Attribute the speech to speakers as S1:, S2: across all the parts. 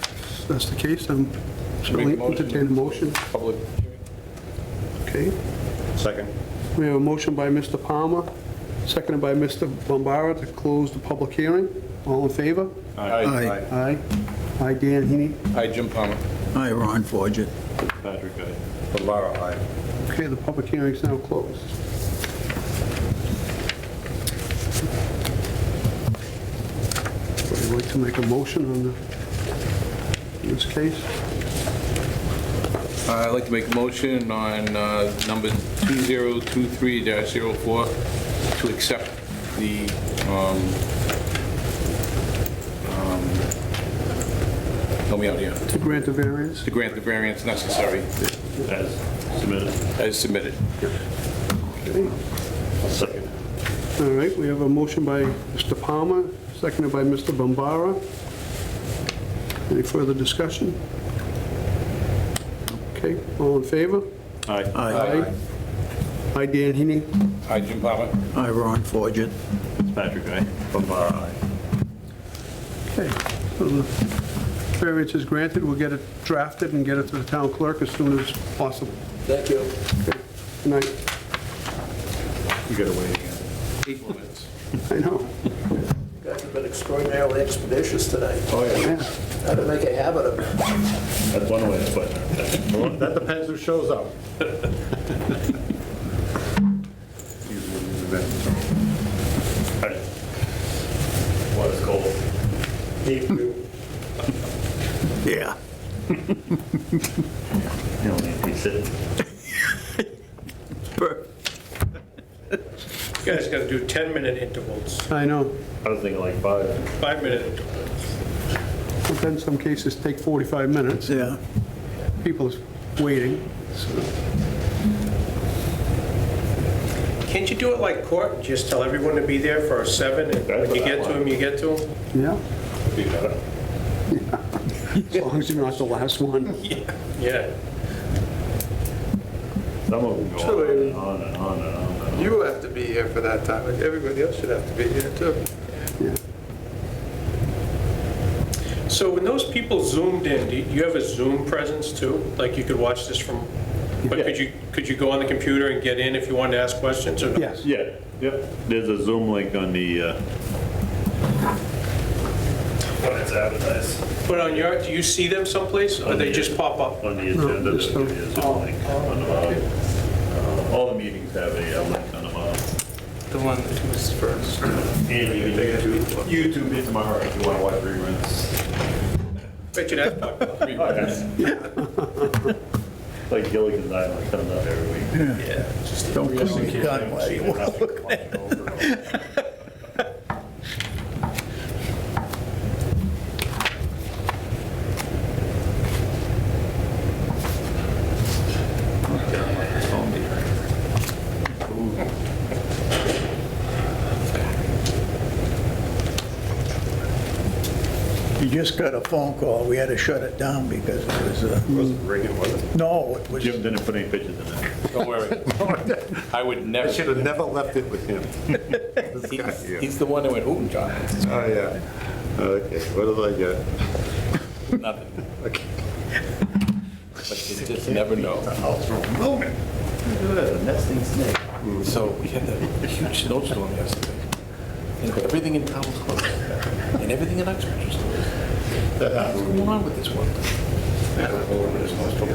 S1: that's, that's the case, I'm certainly entertain a motion.
S2: Public,
S1: Okay,
S2: second.
S1: we have a motion by Mr. Palmer, seconded by Mr. Bombara to close the public hearing. All in favor?
S2: Aye.
S1: Aye. Aye, Dan Heaney.
S2: Aye, Jim Palmer.
S3: Hi, Ron Forget.
S2: Patrick, aye. Laura, aye.
S1: Okay, the public hearing's now closed. Would you like to make a motion on the- this case?
S4: Uh, I'd like to make a motion on uh, number 2023-04 to accept the um, um, help me out here,
S1: To grant the variance?
S4: to grant the variance necessary
S5: As submitted.
S4: as submitted.
S1: Okay.
S5: Second.
S1: All right, we have a motion by Mr. Palmer, seconded by Mr. Bombara. Any further discussion? Okay, all in favor?
S5: Aye.
S3: Hi,
S1: Aye, Dan Heaney.
S4: Hi, Jim Palmer.
S3: hi, Ron Forget.
S5: Patrick, aye.
S2: Bombara, aye.
S1: Okay, so the variance is granted, we'll get it drafted and get it to the town clerk as soon as possible.
S4: Thank you.
S1: Good night.
S2: You gotta wait again.
S4: Eight more minutes.
S1: I know,
S6: You guys have been extraordinarily expeditious tonight.
S1: yeah.
S6: How to make a habit of it.
S5: That's one way to put it.
S2: Well, That depends who shows up.
S5: Aye. Water's cold. You
S3: Yeah.
S5: don't need to be sitting.
S3: Per-
S7: You guys gotta do 10-minute intervals,
S1: I know.
S5: I was thinking like five.
S7: five-minute intervals.
S1: But then some cases take 45 minutes,
S3: Yeah.
S1: people is waiting.
S7: Can't you do it like court, just tell everyone to be there for a seven, and
S5: That's
S7: when you
S5: what I
S7: get to
S5: want.
S7: them, you get to them?
S1: Yeah,
S5: Be better.
S1: as long as you're not the last one.
S7: Yeah.
S5: Some of them go on and on and on and on. and on.
S6: You have to be here for that time, and everybody else should have to be here too.
S7: So when those people zoomed in, do you have a Zoom presence too? Like you could watch this from, but could you, could you go on the computer and get in if you wanted to ask questions or? no?
S1: Yes,
S5: Yeah, yep. There's a Zoom link on the, uh, when it's advertised,
S7: But on your, do you see them someplace, or they just pop up?
S5: on the agenda,
S1: just
S5: there's
S1: the- Oh,
S5: a Zoom link on the bottom. Uh, All the meetings have a uh, link on the bottom.
S7: The one that was first.
S5: And you can take it to YouTube it tomorrow if you want to watch reruns.
S7: Bet you that popped up.
S5: Oh, Like Gilligan's Island comes out every week.
S7: Yeah. just-
S3: Don't call me gun
S5: I've seen it happen over and over and over.
S3: You just got a phone call. We had to shut it down because it was, uh,
S2: Wasn't ringing, was it?
S3: no, it was,
S5: Jim didn't put any pictures in there.
S4: Don't worry. I would
S2: I
S4: never.
S2: should have never left it with him. This guy
S4: He's-
S2: here.
S4: He's the one that went, ooh, John,
S2: Oh, yeah. Okay, what did I get?
S4: nothing.
S2: Okay.
S4: But you just never know.
S2: House from Wilman. Look at that, a nesting snake.
S4: So we had a huge snowstorm yesterday, and everything in town was closed, and everything in Uxbridge was closed. What's going on with this one?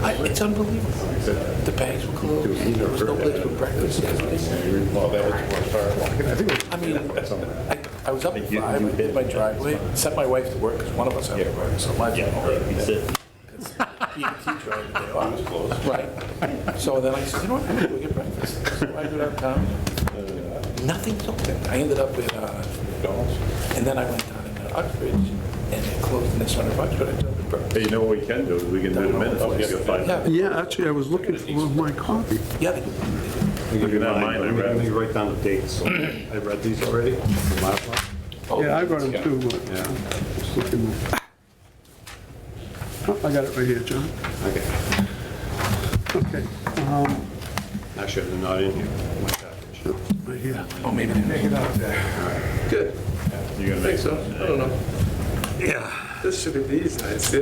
S4: I- It's unbelievable. The banks were closed, there was no place for breakfast.
S2: Well, that was one I think it
S4: I mean, I, I was up at
S5: You-
S4: five,
S5: you
S4: I did my driveway, sent my wife to work, because one of us had to work, so my job.
S5: Yeah, he said,
S4: Right. So then I said, you know what, I'm gonna go get breakfast. So I go downtown, nothing's open. I ended up with uh, McDonald's, and then I went down in Uxbridge, and they closed, and they started Uxbridge, I took breakfast.
S5: Hey, you know what we can do, is we can do the minutes, we can find
S4: Yeah,
S5: out.
S4: they-
S1: yeah, actually, I was looking for one of my copy.
S4: yeah, they do.
S5: Look at that mine, I
S2: Let me-
S5: read.
S2: let me write down the dates. So I read these already, the last one.
S4: Oh,
S1: Yeah, I brought them too, but
S2: Yeah.
S1: just looking. Oh, I got it right here, John.
S2: Okay,
S1: Okay,
S2: actually, they're not in here. My package.
S1: right here.
S4: Oh, maybe they did.
S6: Good,
S5: You're gonna
S6: I
S5: make
S6: think so, I don't know. Yeah. This should be these nights, yeah.